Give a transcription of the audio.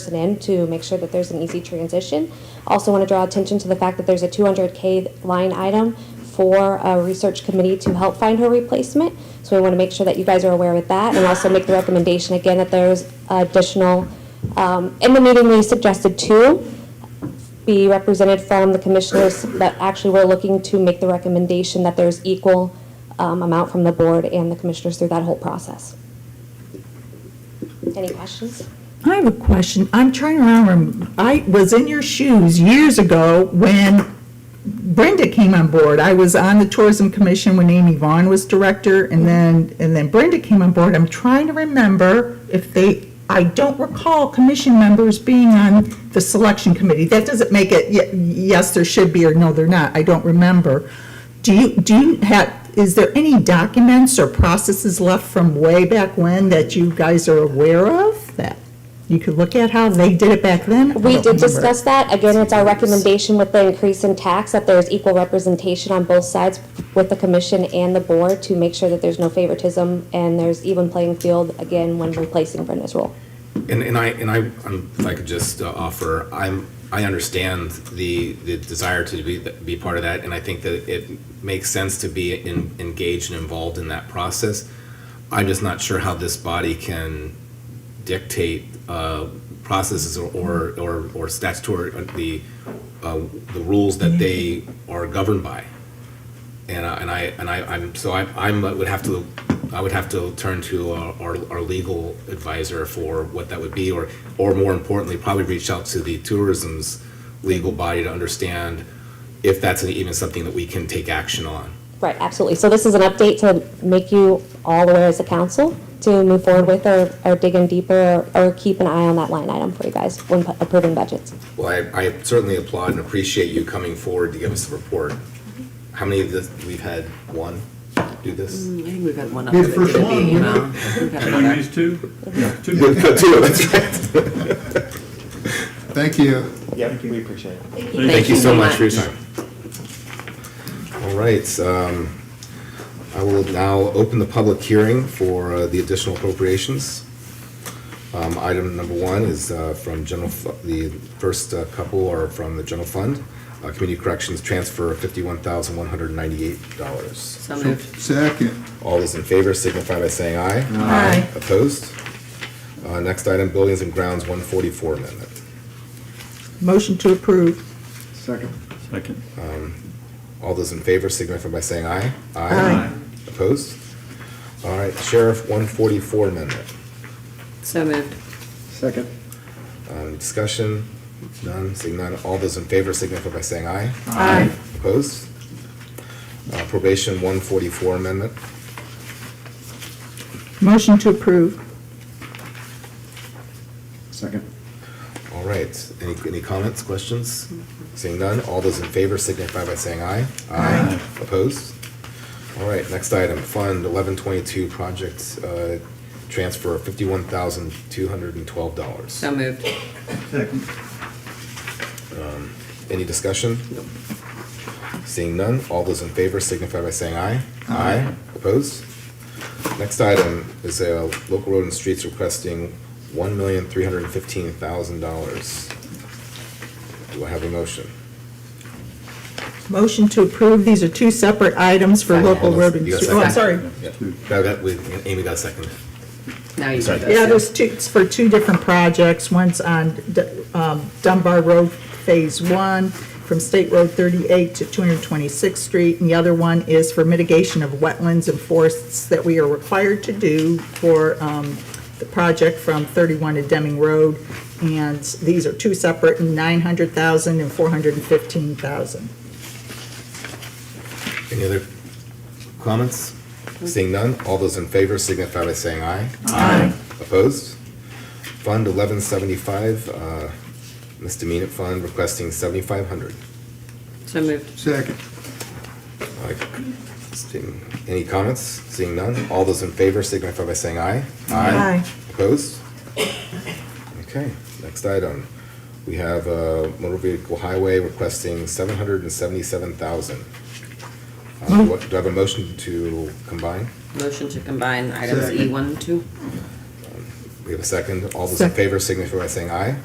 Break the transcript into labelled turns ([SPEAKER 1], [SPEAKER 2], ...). [SPEAKER 1] person in to make sure that there's an easy transition. Also want to draw attention to the fact that there's a 200K line item for a research committee to help find her replacement. So we want to make sure that you guys are aware of that and also make the recommendation again that there's additional, um, in the meeting, we suggested two be represented from the commissioners, but actually we're looking to make the recommendation that there's equal um, amount from the board and the commissioners through that whole process. Any questions?
[SPEAKER 2] I have a question. I'm trying to remember. I was in your shoes years ago when Brenda came on board. I was on the tourism commission when Amy Vaughn was director, and then and then Brenda came on board. I'm trying to remember if they. I don't recall commission members being on the selection committee. That doesn't make it. y- Yes, there should be, or no, they're not. I don't remember. Do you do you have? Is there any documents or processes left from way back when that you guys are aware of that you could look at how they did it back
[SPEAKER 1] We
[SPEAKER 2] then? I don't
[SPEAKER 1] did
[SPEAKER 2] remember.
[SPEAKER 1] discuss that. Again, it's our recommendation with the increase in tax that there's equal representation on both sides with the commission and the board to make sure that there's no favoritism and there's even playing field, again, when replacing Brenda's role.
[SPEAKER 3] And, and I, and I, um, if I could just uh, offer, I'm, I understand the, the desire to be, be part of that, and I think that it makes sense to be en- engaged and involved in that process. I'm just not sure how this body can dictate, uh, processes or- or, or, or statutory, uh, the, uh, the rules that they are governed by. And I, and I, and I, I'm, so I, I'm, would have to, I would have to turn to our, our- our legal advisor for what that would be, or, or more importantly, probably reach out to the tourism's legal body to understand if that's even something that we can take action on.
[SPEAKER 1] Right, absolutely. So this is an update to make you all aware as a council to move forward with or, or dig in deeper or, or keep an eye on that line item for you guys when pu- approving budgets.
[SPEAKER 3] Well, I, I certainly applaud and appreciate you coming forward to give us a report. How many of this, we've had one do this?
[SPEAKER 4] I think we've got one
[SPEAKER 5] We're
[SPEAKER 4] other that
[SPEAKER 5] first
[SPEAKER 4] did
[SPEAKER 5] one,
[SPEAKER 4] the email.
[SPEAKER 5] weren't
[SPEAKER 4] We've got
[SPEAKER 6] Between
[SPEAKER 4] another.
[SPEAKER 6] these two?
[SPEAKER 3] Two,
[SPEAKER 6] Two.
[SPEAKER 3] that's right.
[SPEAKER 5] Thank you.
[SPEAKER 7] Yep, we appreciate it.
[SPEAKER 3] Thank you so much for your time. All right, um, I will now open the public hearing for uh, the additional appropriations. Um, item number one is, uh, from general, fu- the first uh, couple are from the general fund. Uh, community corrections transfer fifty-one thousand one hundred ninety-eight dollars.
[SPEAKER 4] So moved.
[SPEAKER 5] Second,
[SPEAKER 3] All those in favor signify by saying aye.
[SPEAKER 2] Aye.
[SPEAKER 3] Opposed? Uh, next item, buildings and grounds, one forty-four amendment.
[SPEAKER 2] Motion to approve.
[SPEAKER 5] second,
[SPEAKER 6] Second.
[SPEAKER 3] All those in favor signify by saying aye.
[SPEAKER 2] Aye.
[SPEAKER 3] Opposed? All right, Sheriff, 144 amendment.
[SPEAKER 4] So moved.
[SPEAKER 5] second,
[SPEAKER 3] Um, Discussion, none, seeing none. All those in favor signify by saying aye.
[SPEAKER 2] Aye.
[SPEAKER 3] Opposed? Uh, Probation, 144 amendment.
[SPEAKER 2] Motion to approve.
[SPEAKER 5] second,
[SPEAKER 3] All right, any, any comments, questions? Seeing none, all those in favor signify by saying aye. Aye. Opposed? All right, next item, Fund 1122, project uh, transfer, $51,212.
[SPEAKER 4] So moved.
[SPEAKER 6] Second.
[SPEAKER 3] Any discussion?
[SPEAKER 4] Nope.
[SPEAKER 3] Seeing none, all those in favor signify by saying aye. Aye. Opposed? Next item is a local road and streets requesting one million three hundred and fifteen thousand dollars. Do I have a motion?
[SPEAKER 2] Motion to approve. These are two separate items for
[SPEAKER 3] Hold on,
[SPEAKER 2] local
[SPEAKER 3] hold on.
[SPEAKER 2] road and
[SPEAKER 3] You got a
[SPEAKER 2] street. Oh, I'm sorry.
[SPEAKER 3] second? Yeah. Got that with- Amy got a second.
[SPEAKER 4] Now you
[SPEAKER 3] Sorry.
[SPEAKER 4] do
[SPEAKER 2] Yeah,
[SPEAKER 4] this.
[SPEAKER 2] there's two, it's for two different projects. One's on D- um, Dunbar Road Phase One, from State Road 38 to 226th Street, and the other one is for mitigation of wetlands and forests that we are required to do for um, the project from 31 to Deming Road. And these are two separate, 900,000 and 415,000.
[SPEAKER 3] Any other comments? Seeing none, all those in favor signify by saying aye. Aye. Opposed? Fund eleven seventy-five, uh, misdemeanor fund requesting seventy-five hundred.
[SPEAKER 4] So moved.
[SPEAKER 5] second,
[SPEAKER 3] Any comments? Seeing none, all those in favor signify by saying aye.
[SPEAKER 2] Aye.
[SPEAKER 3] Opposed? Okay, next item. We have, uh, motor vehicle highway requesting seven hundred and seventy-seven thousand.
[SPEAKER 2] Mm.
[SPEAKER 3] Uh, what, do I have a motion to combine?
[SPEAKER 4] Motion to combine items
[SPEAKER 5] Second.
[SPEAKER 4] E one, two.
[SPEAKER 3] We have a second. All those in
[SPEAKER 2] Second.
[SPEAKER 3] favor signify by saying aye.